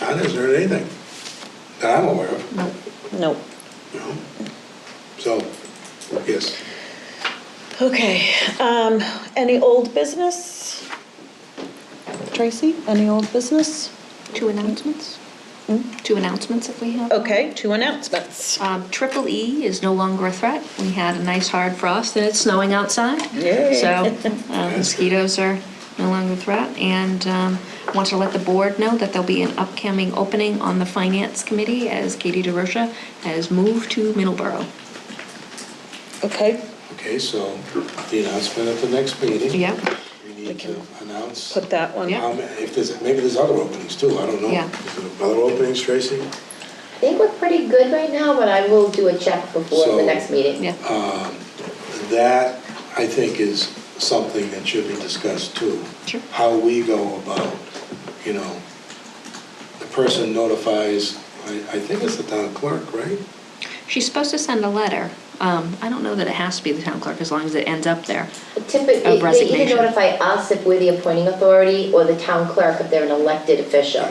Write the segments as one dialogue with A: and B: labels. A: I didn't hear anything that I'm aware of,
B: Nope.
A: you know? So, yes.
B: Okay, um, any old business? Tracy, any old business?
C: Two announcements? Two announcements if we have. them.
B: Hmm? Okay, two announcements.
C: Um, Triple E is no longer a threat. We had a nice hard frost and it's snowing outside.
B: Yay.
C: So uh, mosquitoes are no longer a threat. And um, want to let the board know that there'll be an upcoming opening on the Finance Committee as Katie DeRosa has moved to Middleborough.
B: Okay,
A: Okay, so the announcement at the next meeting.
C: Yep,
A: We
B: We
A: need
B: can
A: to announce.
B: put that one.
C: Yeah.
A: how ma- If there's, maybe there's other openings too, I don't know.
C: Yeah.
A: Is there Other openings, Tracy?
D: I think we're pretty good right now, but I will do a check before
A: So-
D: the next meeting.
C: yeah.
B: Oh.
A: That, I think, is something that should be discussed too.
C: Sure.
A: How we go about, you know, the person notifies, I, I think it's the town clerk, right?
C: She's supposed to send a letter. Um, I don't know that it has to be the town clerk as long as it ends up there.
D: Typically, they either
C: resignation.
D: notify us if we're the appointing authority or the town clerk if they're an elected official.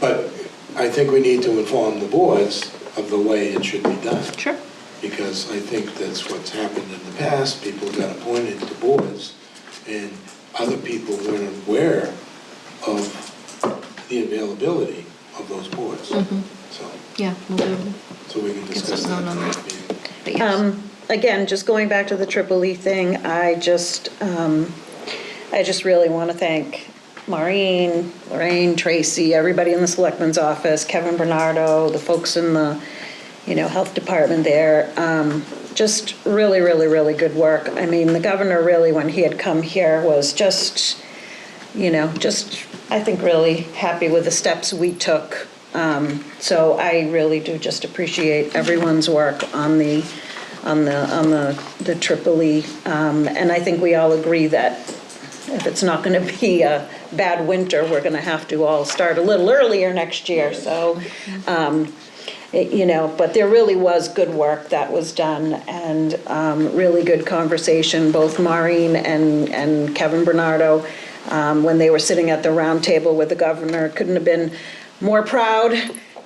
A: But I think we need to inform the boards of the way it should be done.
C: Sure.
A: Because I think that's what's happened in the past, people got appointed to boards, and other people weren't aware of the availability of those boards.
B: Mm-hmm.
A: So,
C: Yeah, we'll do.
A: so we can discuss
C: something
A: that
C: on
A: next
C: that.
A: meeting.
C: But yes.
B: Um, again, just going back to the Triple E thing, I just, um, I just really want to thank Maureen, Lorraine, Tracy, everybody in the selectman's office, Kevin Bernardo, the folks in the, you know, health department there. Um, just really, really, really good work. I mean, the governor really, when he had come here, was just, you know, just, I think, really happy with the steps we took. Um, So I really do just appreciate everyone's work on the, on the, on the the triple E. Um, And I think we all agree that if it's not going to be a bad winter, we're going to have to all start a little earlier next year, so, um, it- you know, but there really was good work that was done and um, really good conversation, both Maureen and and Kevin Bernardo, um, when they were sitting at the round table with the governor, couldn't have been more proud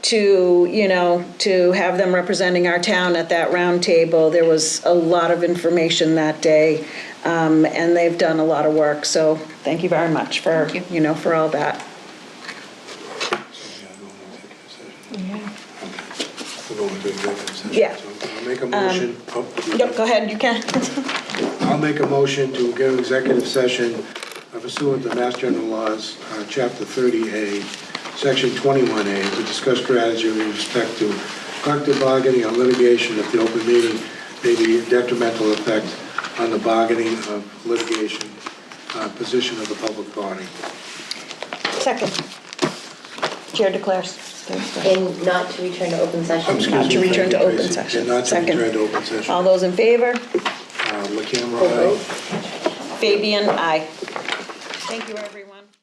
B: to, you know, to have them representing our town at that round table. There was a lot of information that day, um, and they've done a lot of work, so thank you very much for,
C: Thank you.
B: you know, for all that.
A: So, yeah, go into executive session.
C: Yeah.
A: We'll go into executive session.
B: Yeah.
A: So
B: Um,
A: I'll make a motion. Oh, you-
B: Yep, go ahead, you can.
A: I'll make a motion to go to executive session pursuant to Mass General Laws, uh, Chapter 30A, Section 21A, to discuss strategy with respect to collective bargaining or litigation if the open meeting may be detrimental effect on the bargaining of litigation uh, position of the public body.
B: Second. Chair declares.
D: And not to return to open session.
A: Excuse
B: Not to
A: me,
B: return to
A: Tracy.
B: open session.
A: And not to
B: Second.
A: return to open session.
B: All those in favor?
A: Uh, La camera,
D: Full vote.
A: aye.
B: Fabian, aye. Thank you, everyone.